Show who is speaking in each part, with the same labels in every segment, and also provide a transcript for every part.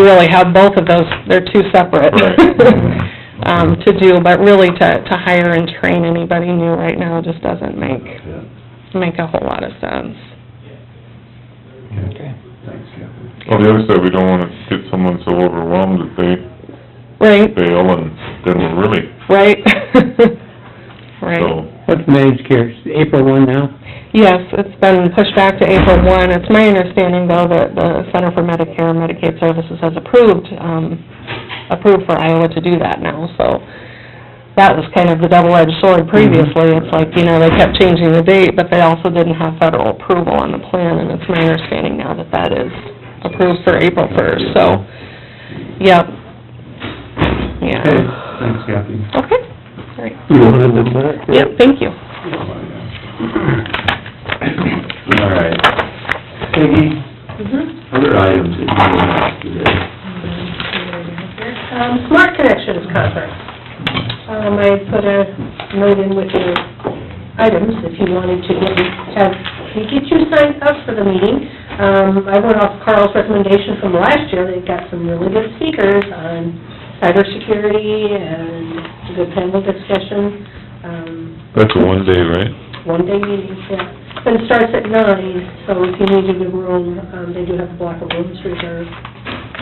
Speaker 1: really have both of those, they're two separate.
Speaker 2: Right.
Speaker 1: Um, to do, but really to, to hire and train anybody new right now just doesn't make,
Speaker 2: Yeah.
Speaker 1: make a whole lot of sense.
Speaker 2: Okay. Thanks, Kathy.
Speaker 3: On the other side, we don't wanna get someone so overwhelmed that they
Speaker 1: Right,
Speaker 3: fail and then we're really,
Speaker 1: right? Right.
Speaker 3: so,
Speaker 4: What's managed care, April one now?
Speaker 1: Yes, it's been pushed back to April one. It's my understanding though that the Center for Medicare and Medicaid Services has approved, um, approved for Iowa to do that now, so. That was kind of the double-edged sword previously. It's like, you know, they kept changing the date, but they also didn't have federal approval on the plan and it's my understanding now that that is approved for April first, so, yep. Yeah.
Speaker 2: Okay, thanks, Kathy.
Speaker 1: Okay, all right.
Speaker 4: You wanted them back? right?
Speaker 1: Yep, thank you.
Speaker 2: All right. Peggy,
Speaker 4: Mm-hmm.
Speaker 2: other items that you want to ask today?
Speaker 5: Um, Smart Connections conference. Um, I put a note in with your items, if you wanted to get, have, to get you signed up for the meeting. Um, I went off Carl's recommendation from last year, they've got some really good speakers on cybersecurity and good panel discussion, um,
Speaker 3: that's a one day, right?
Speaker 5: one day meeting, yeah. But it starts at nine, so if you needed a room, um, they do have a block of rooms reserved.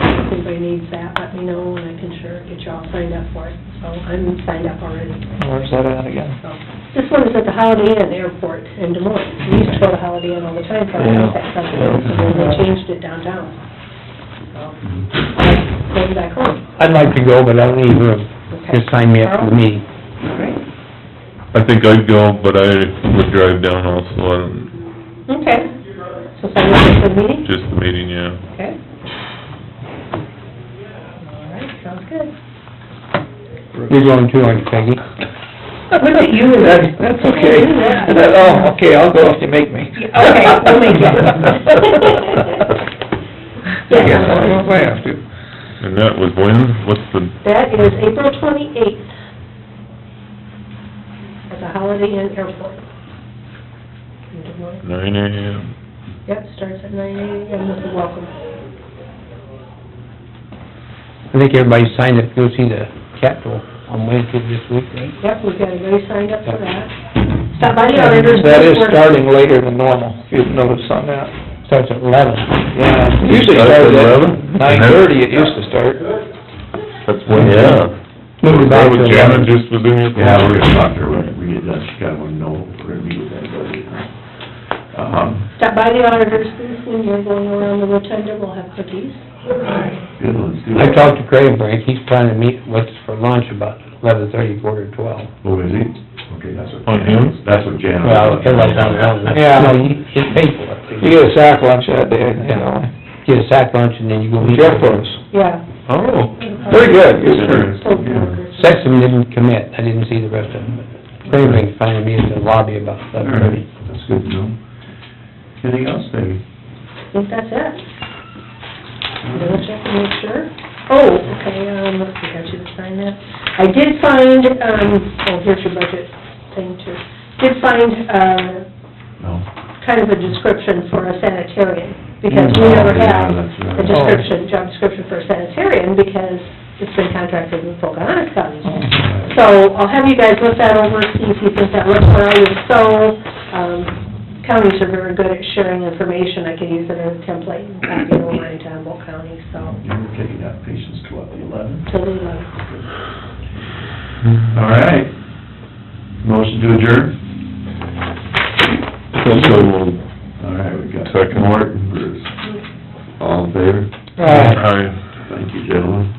Speaker 5: If anybody needs that, let me know, and I can sure get you all signed up for it. So I'm signed up already.
Speaker 4: Oh, Where's that at again?
Speaker 5: So This one is at the Holiday Inn Airport in Des Moines. We used to go to Holiday Inn all the time for
Speaker 4: Yeah.
Speaker 5: that festival, so then they changed it downtown. So
Speaker 4: Mm-hmm.
Speaker 5: I'm Going back home.
Speaker 4: I'd like to go, but I don't need room.
Speaker 5: Okay.
Speaker 4: Just sign me up for the meeting.
Speaker 5: All right.
Speaker 3: I think I'd go, but I would drive down also on
Speaker 5: Okay. So sign up for the meeting?
Speaker 3: just the meeting, yeah.
Speaker 5: Okay. All right, sounds good.
Speaker 4: You're going too, aren't you, Peggy?
Speaker 5: Look at you.
Speaker 4: That's okay. Oh, okay, I'll go if you make me.
Speaker 5: Okay, we'll make it.
Speaker 4: Yes, I'll go if I have to.
Speaker 3: And that was when, what's the,
Speaker 5: That is April twenty-eighth at the Holiday Inn Airport. In Des Moines.
Speaker 3: nine AM?
Speaker 5: Yep, starts at nine AM with the welcome.
Speaker 4: I think everybody signed up to go see the Capitol on Wednesday this week, right?
Speaker 5: Yep, we've got everybody signed up for that. Stop by the auditors.
Speaker 6: That is
Speaker 5: We're-
Speaker 6: starting later than normal, if you've noticed on that.
Speaker 4: Starts at eleven.
Speaker 6: Yeah, it usually
Speaker 3: Starts at
Speaker 6: starts at
Speaker 3: 11?
Speaker 6: nine thirty, it used to start.
Speaker 3: That's when, yeah.
Speaker 4: Move it back to
Speaker 3: That was Janet
Speaker 4: eleven.
Speaker 3: just was in here.
Speaker 2: Yeah, we're gonna talk to her when we get done, she kinda wanna know, if we're gonna meet with anybody. Um,
Speaker 5: Stop by the auditors, booth when you're going around the rotunda, we'll have cookies.
Speaker 2: good, let's do it.
Speaker 4: I talked to Craig Brink, he's planning to meet with us for lunch about eleven thirty, quarter to twelve.
Speaker 2: Oh, is he? Okay, that's what.
Speaker 3: On him?
Speaker 2: That's what Janet.
Speaker 4: Well, everybody's on their own.
Speaker 6: Yeah.
Speaker 4: No, he, he paid for it.
Speaker 6: You get a sack lunch that day, I think, don't
Speaker 4: Get a sack lunch and then you go
Speaker 6: you?
Speaker 4: meet.
Speaker 6: Jeff was,
Speaker 5: Yeah.
Speaker 3: Oh.
Speaker 6: pretty good, good for,
Speaker 2: Interesting, yeah.
Speaker 4: Sexton didn't commit, I didn't see the rest of them, but Craig Brink finally meet in the lobby about
Speaker 2: All
Speaker 4: eleven
Speaker 2: right,
Speaker 4: thirty.
Speaker 2: that's good to know. Anything else, Peggy?
Speaker 5: I think that's it. Double check and make sure. Oh, okay, um, I got you to sign that. I did find, um, oh, here's your budget thing too. Did find, uh,
Speaker 2: No?
Speaker 5: kind of a description for a sanitarian, because we never
Speaker 2: Oh, yeah,
Speaker 5: have
Speaker 2: that's right.
Speaker 5: a description, job description for a sanitarian, because it's been contracted with Pocahontas County.
Speaker 2: Oh.
Speaker 5: So I'll have you guys look that over, see if you think that looks all right. If so, um, counties are very good at sharing information. I could use it as a template and copy it over into Humboldt County, so,
Speaker 2: You were taking out patients to what, the eleven?
Speaker 5: totally love it.
Speaker 2: All right. Motion to adjourn?
Speaker 3: So moved.
Speaker 2: All right, we got
Speaker 3: Second.
Speaker 2: Morton, Bruce. All in favor?
Speaker 6: All right.
Speaker 3: Aye.
Speaker 2: Thank you, gentlemen.